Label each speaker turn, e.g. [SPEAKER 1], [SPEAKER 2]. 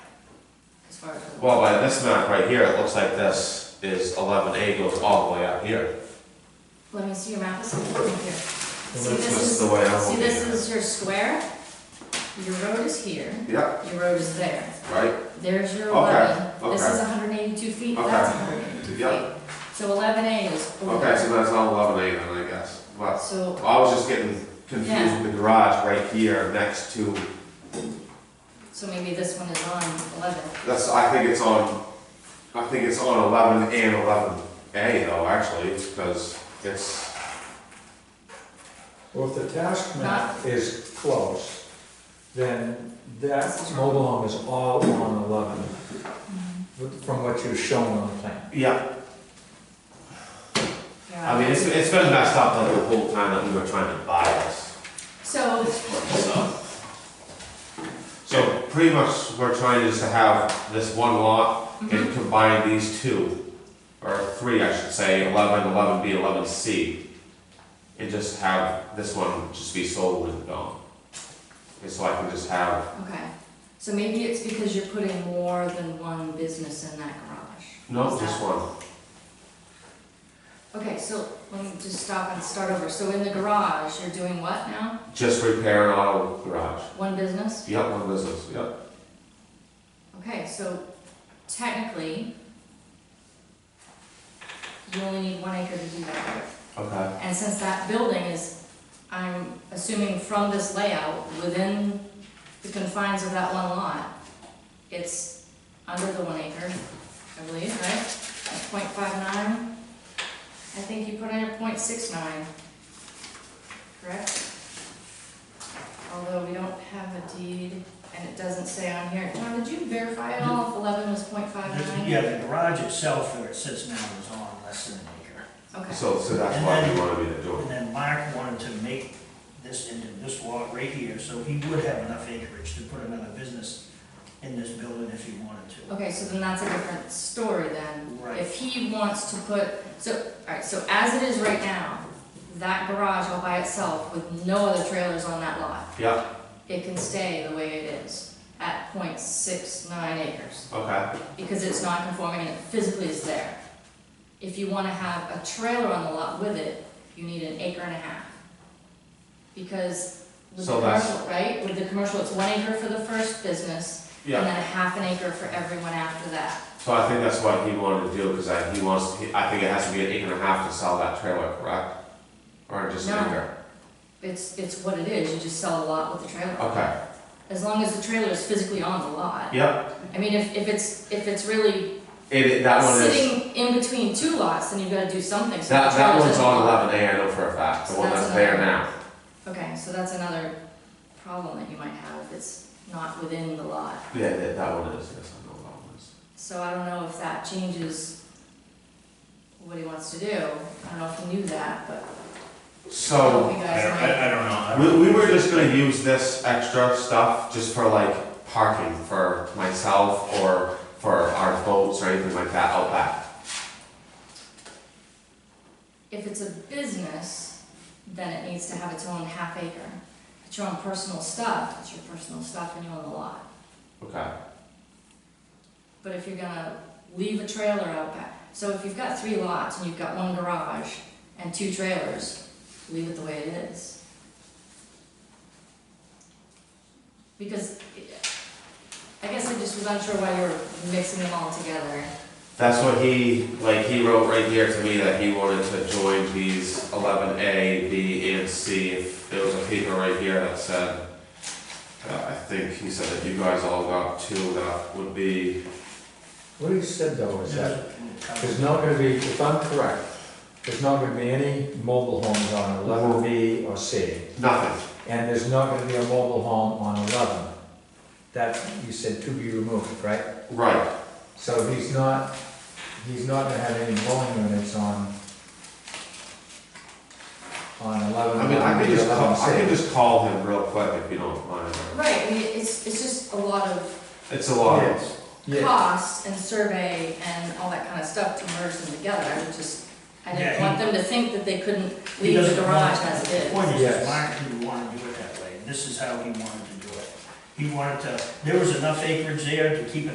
[SPEAKER 1] far as.
[SPEAKER 2] Well, by this map right here, it looks like this is eleven A goes all the way up here.
[SPEAKER 1] Let me see your map, this is over here. See,
[SPEAKER 2] That's
[SPEAKER 1] this
[SPEAKER 2] just
[SPEAKER 1] is,
[SPEAKER 2] the way I'm
[SPEAKER 1] see,
[SPEAKER 2] looking
[SPEAKER 1] this
[SPEAKER 2] at it.
[SPEAKER 1] is your square, your road is here,
[SPEAKER 2] Yep,
[SPEAKER 1] your road is there,
[SPEAKER 2] right,
[SPEAKER 1] there's your
[SPEAKER 2] Okay,
[SPEAKER 1] eleven, this
[SPEAKER 2] okay.
[SPEAKER 1] is hundred and eighty-two feet,
[SPEAKER 2] Okay.
[SPEAKER 1] that's hundred and eighty-two
[SPEAKER 2] Yeah.
[SPEAKER 1] feet. So eleven A is over.
[SPEAKER 2] okay, so that's not eleven A then, I guess, but
[SPEAKER 1] So,
[SPEAKER 2] I was just getting confused with the garage right here next to,
[SPEAKER 1] so maybe this one is on eleven,
[SPEAKER 2] that's, I think it's on, I think it's on eleven and eleven A though, actually, because it's,
[SPEAKER 3] Well, if the task map is close, then that mobile home is all on eleven, with- from what you've shown on the plan.
[SPEAKER 2] yeah,
[SPEAKER 1] yeah.
[SPEAKER 2] I mean, it's, it's been messed up like the whole time that we were trying to buy this.
[SPEAKER 1] So,
[SPEAKER 2] So- So pretty much we're trying to just have this one lot and combine these two, or three, I should say, eleven, eleven B, eleven C. And just have this one just be sold and gone. And so I can just have,
[SPEAKER 1] okay, so maybe it's because you're putting more than one business in that garage.
[SPEAKER 2] no,
[SPEAKER 1] Is that-
[SPEAKER 2] just one,
[SPEAKER 1] Okay, so let me just stop and start over. So in the garage, you're doing what now?
[SPEAKER 2] just repair an auto garage.
[SPEAKER 1] One business?
[SPEAKER 2] Yep, one business, yep.
[SPEAKER 1] Okay, so technically, you only need one acre to do that with.
[SPEAKER 2] Okay.
[SPEAKER 1] And since that building is, I'm assuming from this layout, within the confines of that one lot, it's under the one acre, I believe, right? It's .59. I think you put in a .69, correct? Although we don't have a deed, and it doesn't say on here. John, did you verify at all if eleven was .59?
[SPEAKER 4] Yeah, the garage itself where it sits now is on less than an acre.
[SPEAKER 1] Okay.
[SPEAKER 2] So, so that's why we wanna be the door.
[SPEAKER 4] And then Mark wanted to make this into this lot right here, so he would have enough acreage to put another business in this building if he wanted to.
[SPEAKER 1] Okay, so then that's a different story then.
[SPEAKER 4] Right.
[SPEAKER 1] If he wants to put, so, alright, so as it is right now, that garage all by itself with no other trailers on that lot,
[SPEAKER 2] Yep,
[SPEAKER 1] it can stay the way it is at 0.69 acres,
[SPEAKER 2] okay,
[SPEAKER 1] because it's not conforming and it physically is there. If you wanna have a trailer on the lot with it, you need an acre and a half. Because with the
[SPEAKER 2] So that's-
[SPEAKER 1] commercial, right, with the commercial, it's one acre for the first business, and
[SPEAKER 2] yeah.
[SPEAKER 1] then a half an acre for everyone after that.
[SPEAKER 2] So I think that's what he wanted to do, cause I, he wants, he- I think it has to be an acre and a half to sell that trailer, correct? Or just an
[SPEAKER 1] No.
[SPEAKER 2] acre?
[SPEAKER 1] It's, it's what it is, you just sell a lot with the trailer.
[SPEAKER 2] Okay,
[SPEAKER 1] As long as the trailer is physically on the lot.
[SPEAKER 2] yep,
[SPEAKER 1] I mean, if, if it's, if it's really
[SPEAKER 2] it, it- that one is,
[SPEAKER 1] sitting in between two lots, then you've gotta do something. so
[SPEAKER 2] that,
[SPEAKER 1] the
[SPEAKER 2] that
[SPEAKER 1] trailer's
[SPEAKER 2] one's
[SPEAKER 1] in the
[SPEAKER 2] on
[SPEAKER 1] lot.
[SPEAKER 2] eleven A, I know for a fact, the
[SPEAKER 1] So
[SPEAKER 2] one
[SPEAKER 1] that's
[SPEAKER 2] that's there
[SPEAKER 1] another-
[SPEAKER 2] now.
[SPEAKER 1] Okay, so that's another problem that you might have, if it's not within the lot.
[SPEAKER 2] Yeah, that, that one is, yes, I know that one is.
[SPEAKER 1] So I don't know if that changes what he wants to do. I don't know if he knew that, but I hope
[SPEAKER 2] So,
[SPEAKER 1] you
[SPEAKER 5] I don't,
[SPEAKER 1] guys might.
[SPEAKER 5] I, I don't know. I
[SPEAKER 2] we,
[SPEAKER 5] don't-
[SPEAKER 2] we were just gonna use this extra stuff just for like parking for myself or for our boats or anything like that out back.
[SPEAKER 1] If it's a business, then it needs to have its own half acre. If it's your own personal stuff, it's your personal stuff and you own the lot.
[SPEAKER 2] Okay,
[SPEAKER 1] But if you're gonna leave a trailer out back, so if you've got three lots and you've got one garage and two trailers, leave it the way it is. Because I guess I just was unsure why you were mixing them all together.
[SPEAKER 2] that's what he, like, he wrote right here to me that he wanted to join these eleven A, B, E, and C. If There was a paper right here that said Uh, I think he said that you guys all got two, that would be,
[SPEAKER 3] What he said though is that there's
[SPEAKER 4] There's
[SPEAKER 3] not gonna be, if I'm correct, there's not gonna be any mobile homes on eleven B or C,
[SPEAKER 2] nothing,
[SPEAKER 3] and there's not gonna be a mobile home on eleven. That, you said to be removed, right?
[SPEAKER 2] right,
[SPEAKER 3] So he's not, he's not gonna have any dwelling units on, on eleven.
[SPEAKER 2] I mean, I could just call, I
[SPEAKER 3] 11C.
[SPEAKER 2] could just call him real quick if you don't mind.
[SPEAKER 1] Right, I mean, it's, it's just a lot of
[SPEAKER 2] It's a lot,
[SPEAKER 3] Yes. Yeah,
[SPEAKER 1] cost and survey and all that kind of stuff to merge them together. I would just, I
[SPEAKER 4] Yeah,
[SPEAKER 1] didn't
[SPEAKER 4] he-
[SPEAKER 1] want them to think that they couldn't leave the garage as it is.
[SPEAKER 4] The point is,
[SPEAKER 3] Yes.
[SPEAKER 4] that Mark didn't want to do it that way. This is how he wanted to do it. He wanted to, there was enough acreage there to keep it